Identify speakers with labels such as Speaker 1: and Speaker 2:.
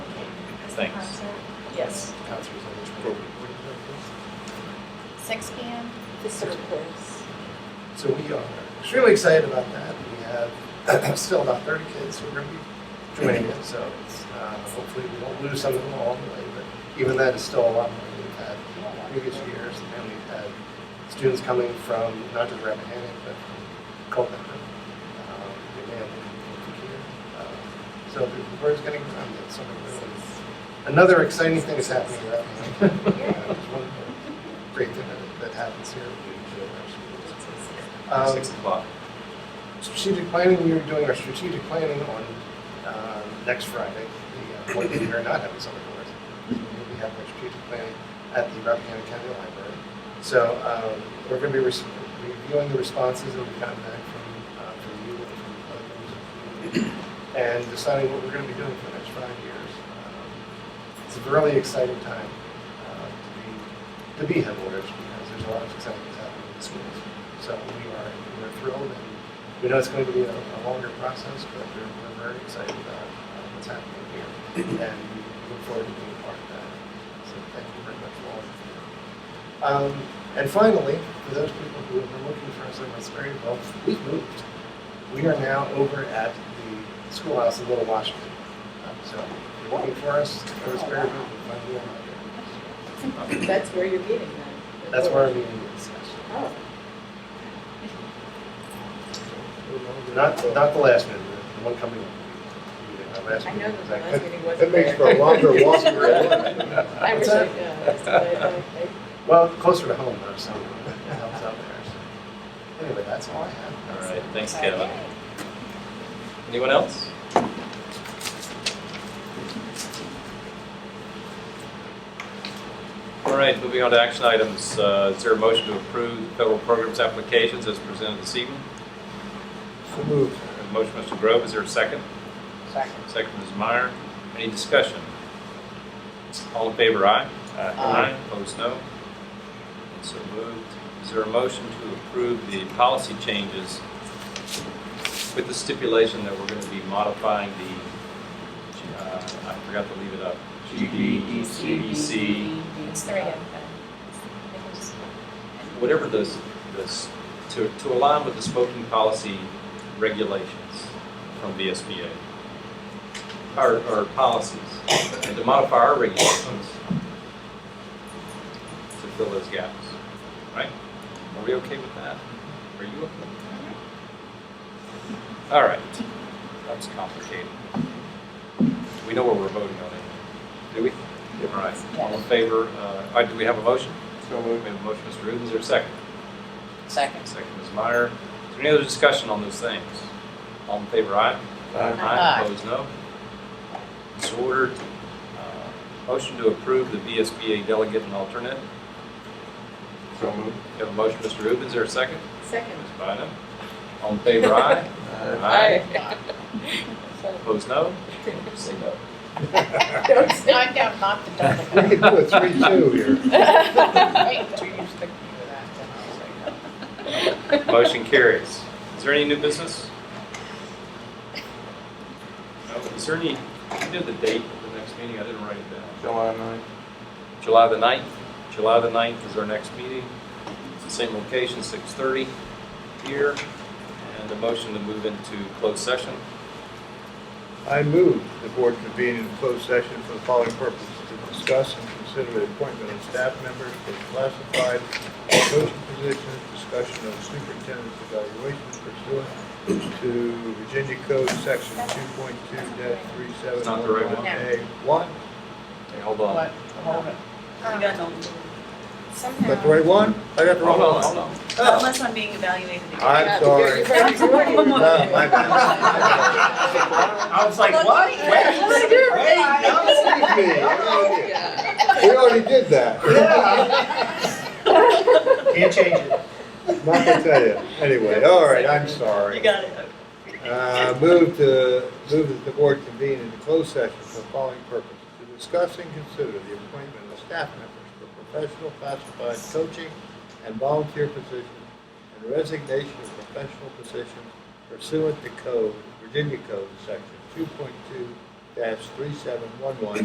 Speaker 1: things.
Speaker 2: Yes.
Speaker 3: Concerts on which
Speaker 1: Cool.
Speaker 3: one?
Speaker 4: Six P M?
Speaker 2: The surplus.
Speaker 3: So we are extremely excited about that. We have still about 30 kids who are going to be joining it, so it's, uh, hopefully we won't lose some of them along the way, but even that is still a lot more than we've had in previous years. And we've had students coming from not just Rappahannock, but from Culpeper. um, we may have people from here. Uh, So the word's getting around that something really, another exciting thing is happening in Rappahannock. Uh, it's one Great thing that- that happens here. We enjoy our schools. Um,
Speaker 1: Six o'clock.
Speaker 3: strategic planning, we are doing our strategic planning on uh, next Friday, the uh, one that we are not having summer course. We have our strategic planning at the Rappahannock County Library. So um, we're going to be res- reviewing the responses that we've gotten back from, uh, from you and from other members of the community, and deciding what we're going to be doing for the next five years. Um, It's a really exciting time uh, to be, to be headwaters, because there's a lot of exciting things happening in the schools. So we are, we're thrilled, and we know it's going to be a, a longer process, but we're, we're very excited about uh, what's happening here, and we look forward to being part of that. So thank you very much, all. of you. Um, and finally, for those people who have been looking for us in Westbury, well, we moved. We are now over at the schoolhouse in Little Washington. Um, So if you're looking for us, in Westbury, we can find you around here.
Speaker 2: That's where you're getting them.
Speaker 3: That's where our meeting is.
Speaker 2: Oh,
Speaker 3: Not, not the last meeting, the one coming up. Our last
Speaker 2: I know
Speaker 3: meeting
Speaker 2: that the
Speaker 3: is that-
Speaker 2: last meeting
Speaker 5: That
Speaker 2: wasn't
Speaker 5: makes for
Speaker 2: there.
Speaker 5: a longer walk than one.
Speaker 2: I wish I does, but I, I
Speaker 3: Well, closer to home, though, so it helps out there. So Anyway, that's all I have.
Speaker 1: All right, thanks, Kevin. Anyone else? All right, moving on to action items. Uh, Is there a motion to approve federal programs applications as presented this evening?
Speaker 3: So moved.
Speaker 1: A Motion, Mr. Grove, is there a second?
Speaker 5: Second.
Speaker 1: Second, Ms. Meyer. Any discussion? All in favor, aye? Aye. Opposed, no? And So moved. Is there a motion to approve the policy changes with the stipulation that we're going to be modifying the, uh, I forgot to leave it up.
Speaker 2: E
Speaker 1: E GBEC,
Speaker 4: It's three of them.
Speaker 1: whatever those, those, to, to align with the smoking policy regulations from VSBA, our, our policies, and to modify our regulations to fill those gaps, right? Are we okay with that? Are you okay with that? All right, that's complicated. We know what we're voting on, anyway. do we? All right, all in favor, uh, all right, do we have a motion? So moved. We have a motion, Mr. Rubin, is there a second?
Speaker 5: Second.
Speaker 1: Second, Ms. Meyer. Is there any other discussion on those things? All in favor, aye?
Speaker 5: Aye.
Speaker 1: Opposed, no? It's ordered. Uh, Motion to approve the VSBA delegate and alternate.
Speaker 5: So moved.
Speaker 1: We have a motion, Mr. Rubin, is there a second?
Speaker 2: second.
Speaker 1: Ms. Bynum? All in favor, aye?
Speaker 5: Uh,
Speaker 1: Aye. Opposed, no? Say no.
Speaker 2: Don't say-
Speaker 4: Knocked out, not the double.
Speaker 5: We could do a three-two here.
Speaker 4: Wait, do you use the-
Speaker 1: Motion carries. Is there any new business? No. Is there any, you know the date of the next meeting? I didn't write it down.
Speaker 5: July ninth.
Speaker 1: July the 9th. July the 9th is our next meeting. It's the same location, 6:30 here. And a motion to move into closed session.
Speaker 5: I move the board convene in closed session for the following purposes to discuss and consider the appointment of staff members for classified or coaching positions, discussion of superintendent's evaluation pursuant to Virginia Code Section two point two three seven
Speaker 1: It's not the right
Speaker 5: one
Speaker 1: one.
Speaker 5: A one.
Speaker 1: Hey, hold on.
Speaker 5: Is that the
Speaker 4: Um, Somehow.
Speaker 5: right one? I got the wrong
Speaker 1: Hold on,
Speaker 5: one.
Speaker 1: hold on.
Speaker 5: Oh,
Speaker 6: Unless I'm being evaluated again.
Speaker 5: I'm sorry. No, my bad.
Speaker 3: I was like, what? Wait,
Speaker 5: Excuse me. We already did that.
Speaker 3: Can't change it.
Speaker 5: Not gonna tell you. Anyway, all right, I'm sorry.
Speaker 6: You got it.
Speaker 5: Uh, Move to, move that the board convene in closed session for the following purpose: to discuss and consider the appointment of staff members for professional classified coaching and volunteer positions and resignation of professional positions pursuant to code, Virginia Code, section two point two three seven one one